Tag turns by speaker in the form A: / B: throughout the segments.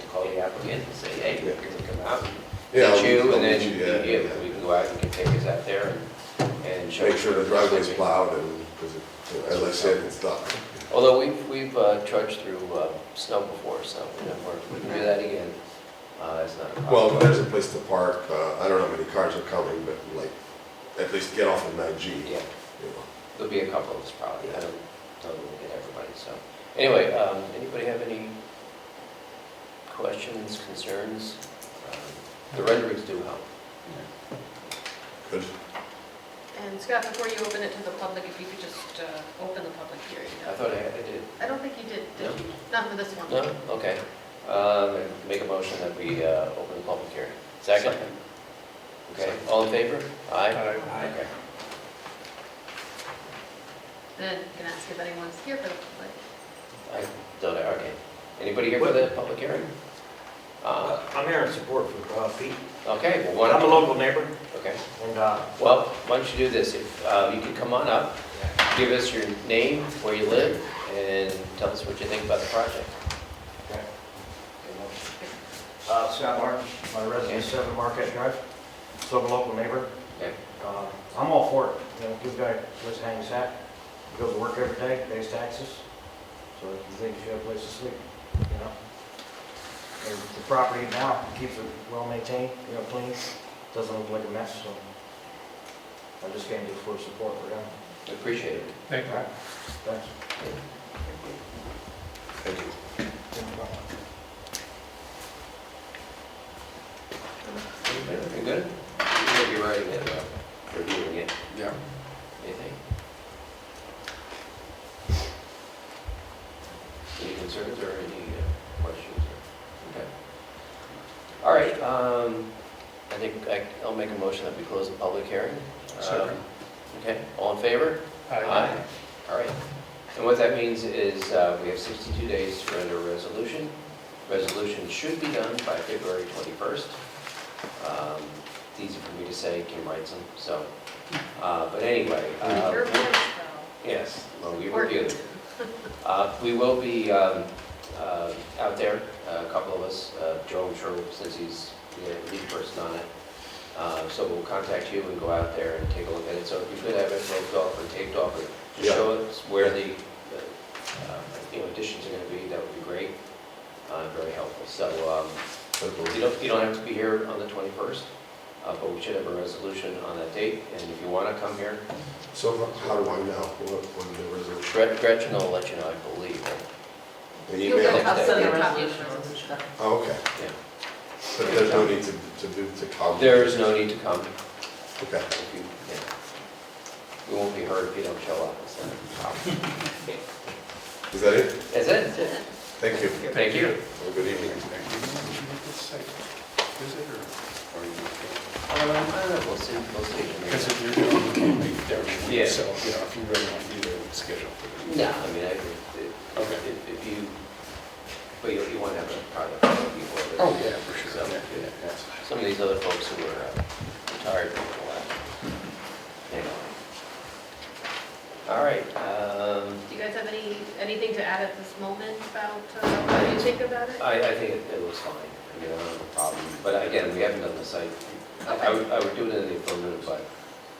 A: applicant and say, hey,
B: Yeah.
A: you're gonna come out,
B: Yeah,
A: get
B: we-
A: you,
B: I'll
A: and then
B: meet
A: you,
B: you, yeah, yeah.
A: we can go out, and we can take us out there and- and show.
B: Make sure the driveway's
A: Yeah.
B: plowed and, because as I said, it's not.
A: Although we've, we've uh, trudged through uh, snow before, so you know, we're- we can do that again. Uh, It's not a problem.
B: Well, there's a place to park, uh, I don't know how many cars are coming, but like, at least get off of nine G.
A: Yeah, there'll be a couple of us probably, I don't, don't look at everybody, so. Anyway, um, anybody have any questions, concerns? Um, The renderings do help.
B: Good.
C: And Scott, before you open it to the public, if you could just uh, open the public hearing.
A: I thought I I did.
C: I don't think you did, did
A: No.
C: you? Not for this one.
A: No? Okay. Um, Make a motion that we uh, open the public hearing. Second? Okay, all in favor? Aye? Okay.
C: Then you can ask if anyone's here for the public.
A: I don't know, okay. Anybody here for the public hearing? Uh,
D: I'm here in support for uh, Pete.
A: Okay, well, why
D: I'm a
A: don't,
D: local neighbor,
A: okay.
D: and uh,
A: Well, why don't you do this, if, uh, you can come on up, give us your name, where you live, and tell us what you think about the project.
D: uh, Scott Martin, my resident, 7 Marquette Drive, so I'm a local neighbor.
A: Okay.
D: Uh, I'm all for it, you know, good guy, lives in Hang's Hat, goes to work every day, pays taxes, so if you think you have a place to sleep, you know? And the property now keeps it well maintained, you know, clean, doesn't look like a mess, so I just came to for support for him.
A: Appreciate it.
D: Thank you. Thanks.
B: Thank you.
A: You good? You may be writing it, uh, reviewing it,
E: Yeah.
A: anything? Any concerns or any uh, questions? or- Okay. All right, um, I think I- I'll make a motion that we close the public hearing. Um,
E: Second.
A: Okay, all in favor? Aye. All right. And what that means is uh, we have 62 days to render a resolution. Resolution should be done by February 21st. Um, It's easy for me to say, Kim writes them, so. uh, But anyway, uh,
C: Your voice,
A: yes, well, we
C: though.
A: review them. Uh, We will be um, uh, out there, a couple of us, uh, Joe, I'm sure, since he's the lead person on it. Uh, So we'll contact you and go out there and take a look at it. So if you could have it roped off or taped off, or just
B: Yeah.
A: show us where the, uh, uh, you know, additions are going to be, that would be great, Uh, very helpful. So um, you don't, you don't have to be here on the 21st, uh, but we should have a resolution on that date. And if you want to come here,
B: So how- how do I know what, when the resolution?
A: Gret- Gretchen will let you know, I believe, right?
B: The
C: You'll get a
B: email?
A: have-
C: copy,
A: I'll send the
C: you'll get a copy of the resolution.
B: Oh, okay.
A: Yeah.
B: But there's no need to, to do, to comment?
A: There is no need to come.
B: Okay.
A: If you- yeah. We won't be hurt if you don't show up, so.
B: Is that it?
A: That's it?
B: Thank you.
A: Thank you.
B: Have a good evening.
A: Um, I don't know, we'll see, we'll
E: Because
A: see.
E: if you're doing, it, you leave there,
A: Yeah.
E: so, you know, if you really want to be there, it's scheduled.
A: No, I mean, I, agree.
E: Okay.
A: if, if- if you, but you, you want to have a product before.
E: Oh, yeah, for sure.
A: So,
E: Yeah,
A: yeah.
E: yeah, that's-
A: Some of these other folks who are uh, retired uh, for a while. Anyway. All right, um,
C: Do you guys have any, anything to add at this moment about uh, what you think about it?
A: I, I think it it looks fine, I mean, I don't have a problem, but again, we haven't done the site. I- I would, I would do it in the affirmative, but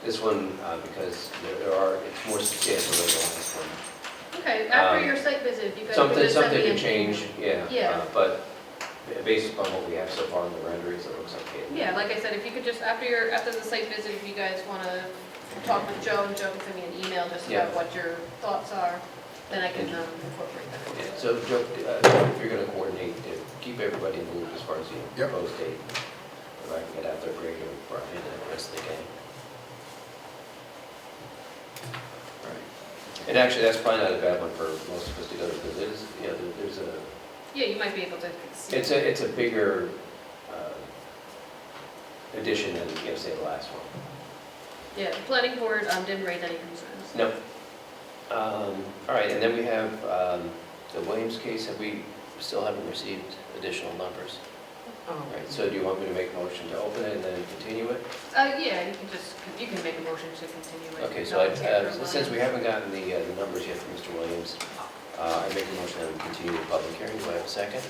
A: this one, uh, because there there are, it's more substantial than the last one.
C: Okay, after
A: um,
C: your site visit, if you guys could
A: Something,
C: just send
A: something can
C: me an
A: change,
C: email.
A: yeah. uh,
C: Yeah.
A: But based upon what we have so far in the renderings, it looks okay.
C: Yeah, like I said, if you could just, after your, after the site visit, if you guys want to talk with Joe, and Joe can send me an email just
A: Yeah.
C: about what your thoughts are, then I can um, incorporate that.
A: Yeah, So, Joe, uh, if you're gonna coordinate, uh, keep everybody in the loop as far as the
E: Yep.
A: proposed date. If I can get out there, Greg and Brian and the rest of the gang. Alright. And actually, that's probably not a bad one for most of us to go to, because it is, you know, there- there's a,
C: Yeah, you might be able to see.
A: it's a, it's a bigger uh, addition than, you know, say, the last one.
C: Yeah, the planning board um, didn't raise any concerns.
A: No. Um, All right, and then we have um, the Williams case, have we, still haven't received additional numbers? All right, so do you want me to make a motion to open it and then continue it?
C: Uh, yeah, you can just, you can make a motion to continue it.
A: Okay, so I- uh, since we haven't gotten the uh, the numbers yet from Mr. Williams, uh, I make a motion that we continue the public hearing, do I have a second?